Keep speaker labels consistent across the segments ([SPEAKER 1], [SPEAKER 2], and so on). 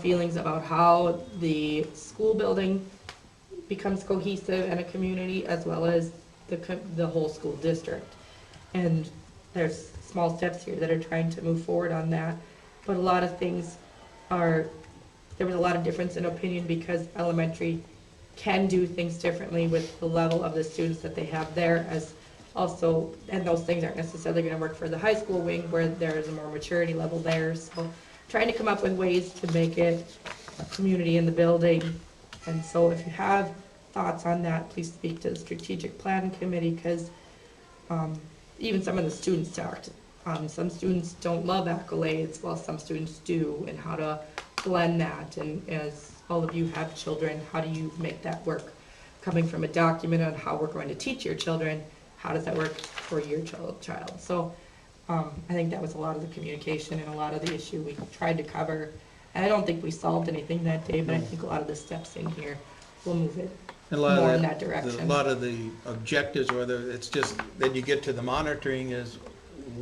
[SPEAKER 1] feelings about how the school building becomes cohesive and a community as well as the, co- the whole school district. And there's small steps here that are trying to move forward on that, but a lot of things are, there was a lot of difference in opinion because elementary can do things differently with the level of the students that they have there as also, and those things aren't necessarily gonna work for the high school wing where there is a more maturity level there, so trying to come up with ways to make it a community in the building. And so if you have thoughts on that, please speak to the strategic planning committee, because Um, even some of the students talked. Um, some students don't love accolades, while some students do, and how to blend that. And as all of you have children, how do you make that work? Coming from a document on how we're going to teach your children, how does that work for your child? child? So um, I think that was a lot of the communication and a lot of the issue we tried to cover. And I don't think we solved anything that day, but I think a lot of the steps in here will move it
[SPEAKER 2] A lot of
[SPEAKER 1] more
[SPEAKER 2] the-
[SPEAKER 1] in that
[SPEAKER 2] the-
[SPEAKER 1] direction.
[SPEAKER 2] A lot of the objectives, whether it's just, then you get to the monitoring is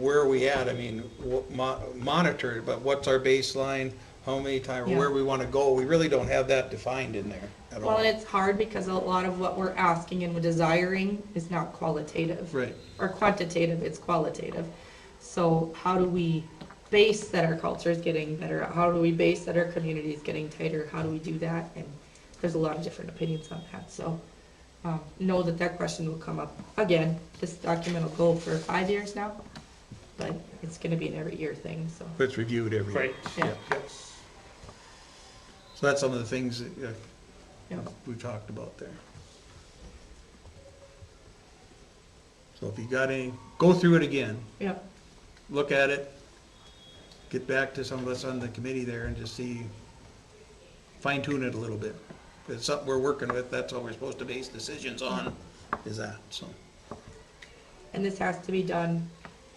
[SPEAKER 2] where are we at? I mean, wh- mo- monitor, it, but what's our baseline, how many times,
[SPEAKER 1] Yeah.
[SPEAKER 2] where we want to go? We really don't have that defined in there at
[SPEAKER 1] Well,
[SPEAKER 2] all.
[SPEAKER 1] and it's hard because a lot of what we're asking and desiring is not qualitative.
[SPEAKER 2] Right.
[SPEAKER 1] Or quantitative, it's qualitative. So how do we base that our culture is getting better? How do we base that our community is getting tighter? How do we do that? And there's a lot of different opinions on that, so, um, know that that question will come up again. This document will go for five years now, but it's gonna be an every year thing, so,
[SPEAKER 2] But It's reviewed every year.
[SPEAKER 3] Right.
[SPEAKER 1] yeah,
[SPEAKER 2] So that's some of the things that
[SPEAKER 1] yeah.
[SPEAKER 2] uh, we talked about there. So if you got any, go through it again.
[SPEAKER 1] yeah.
[SPEAKER 2] look at it, get back to some of us on the committee there and just see, fine tune it a little bit. If it's something we're working with, that's all we're supposed to base decisions on, is that, so.
[SPEAKER 1] And this has to be done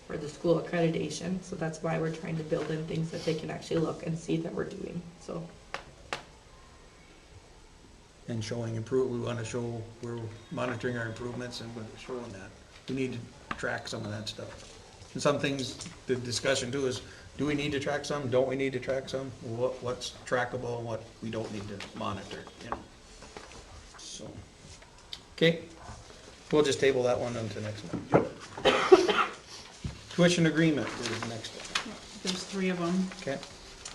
[SPEAKER 1] for the school accreditation, so that's why we're trying to build in things that they can actually look and see that we're doing, so.
[SPEAKER 2] And showing improve, we wanna show, we're monitoring our improvements and we're showing that. We need to track some of that stuff. And some things, the discussion too is, do we need to track some, don't we need to track some? What, what's trackable and what we don't need to monitor, you know? So, okay, we'll just table that one until next month. Tuition agreement is next,
[SPEAKER 4] There's three of them.
[SPEAKER 2] okay?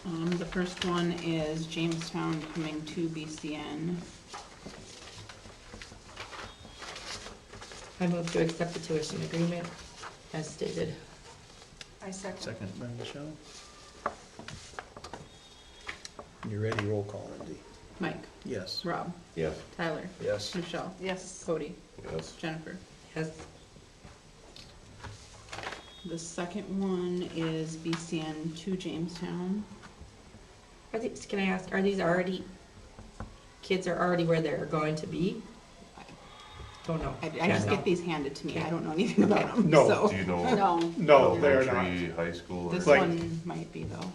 [SPEAKER 4] Um, the first one is Jamestown coming to BCN.
[SPEAKER 1] I move to accept the tuition agreement as stated.
[SPEAKER 5] I second.
[SPEAKER 2] Second by Michelle. You ready, roll call, Lindsay?
[SPEAKER 4] Mike,
[SPEAKER 2] Yes.
[SPEAKER 4] Rob,
[SPEAKER 3] Yes.
[SPEAKER 4] Tyler,
[SPEAKER 2] Yes.
[SPEAKER 4] Michelle,
[SPEAKER 5] Yes,
[SPEAKER 4] Cody,
[SPEAKER 3] Yes.
[SPEAKER 4] Jennifer.
[SPEAKER 1] Yes,
[SPEAKER 4] The second one is BCN to Jamestown.
[SPEAKER 1] are these, can I ask, are these already, kids are already where they're going to be? Don't know.
[SPEAKER 4] I, I just
[SPEAKER 1] Don't know.
[SPEAKER 4] get these handed to me. I don't know anything about them,
[SPEAKER 3] No,
[SPEAKER 4] so.
[SPEAKER 3] do you know
[SPEAKER 4] No,
[SPEAKER 3] No,
[SPEAKER 6] No, they are not.
[SPEAKER 3] elementary, high school?
[SPEAKER 4] this
[SPEAKER 3] or-
[SPEAKER 6] Like-
[SPEAKER 4] one might be though.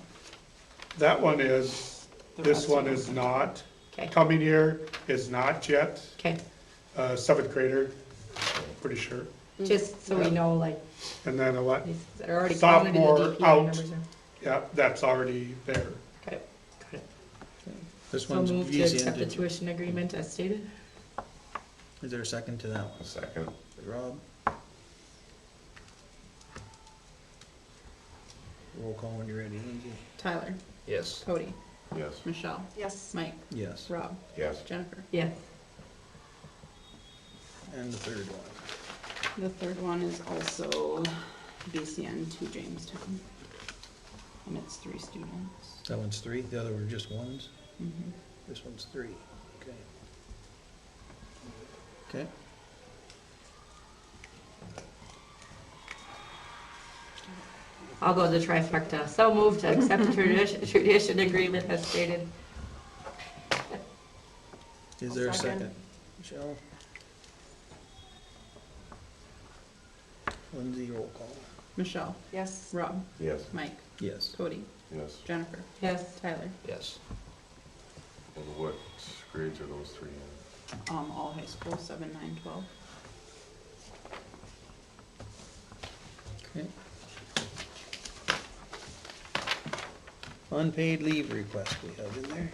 [SPEAKER 6] That one is,
[SPEAKER 4] The
[SPEAKER 6] this
[SPEAKER 4] rest
[SPEAKER 6] one
[SPEAKER 4] of
[SPEAKER 6] is
[SPEAKER 4] them.
[SPEAKER 6] not.
[SPEAKER 1] Okay,
[SPEAKER 6] Coming year is not yet,
[SPEAKER 1] okay,
[SPEAKER 6] uh, seventh grader, pretty sure.
[SPEAKER 1] just so we
[SPEAKER 4] Mm.
[SPEAKER 1] know, like,
[SPEAKER 6] And then a lot,
[SPEAKER 1] these that are already counted in the
[SPEAKER 6] Sophomore
[SPEAKER 1] DPI
[SPEAKER 6] out.
[SPEAKER 1] numbers. are-
[SPEAKER 6] yeah, that's already there.
[SPEAKER 1] Okay, got it.
[SPEAKER 2] This
[SPEAKER 1] So
[SPEAKER 2] one's
[SPEAKER 1] move to
[SPEAKER 2] easy.
[SPEAKER 1] accept the
[SPEAKER 2] ended.
[SPEAKER 1] tuition agreement as stated?
[SPEAKER 2] Is there a second to that
[SPEAKER 3] A second.
[SPEAKER 2] one? Rob? Roll call when you're ready, Lindsay.
[SPEAKER 4] Tyler,
[SPEAKER 2] Yes.
[SPEAKER 4] Cody,
[SPEAKER 3] Yes.
[SPEAKER 4] Michelle,
[SPEAKER 5] yes,
[SPEAKER 4] Mike,
[SPEAKER 2] Yes,
[SPEAKER 4] Rob,
[SPEAKER 3] Yes.
[SPEAKER 4] Jennifer.
[SPEAKER 1] Yes.
[SPEAKER 2] and the third one.
[SPEAKER 4] The third one is also BCN to Jamestown. And it's three students.
[SPEAKER 2] That one's three, the other were just ones,
[SPEAKER 4] Mhm.
[SPEAKER 2] this one's three, okay. Okay,
[SPEAKER 1] I'll go the trifecta. So moved to accept the tradition, tradition agreement as stated.
[SPEAKER 5] I'll
[SPEAKER 2] is there a
[SPEAKER 5] second.
[SPEAKER 2] second? Michelle? Lindsay, roll call.
[SPEAKER 4] Michelle,
[SPEAKER 5] yes,
[SPEAKER 4] Rob,
[SPEAKER 3] Yes.
[SPEAKER 4] Mike,
[SPEAKER 2] Yes.
[SPEAKER 4] Cody,
[SPEAKER 3] Yes.
[SPEAKER 4] Jennifer,
[SPEAKER 1] Yes,
[SPEAKER 4] Tyler,
[SPEAKER 2] Yes.
[SPEAKER 3] And what grades are those three in?
[SPEAKER 4] um, all high school, seven, nine, twelve.
[SPEAKER 2] Okay. unpaid leave request we have in there.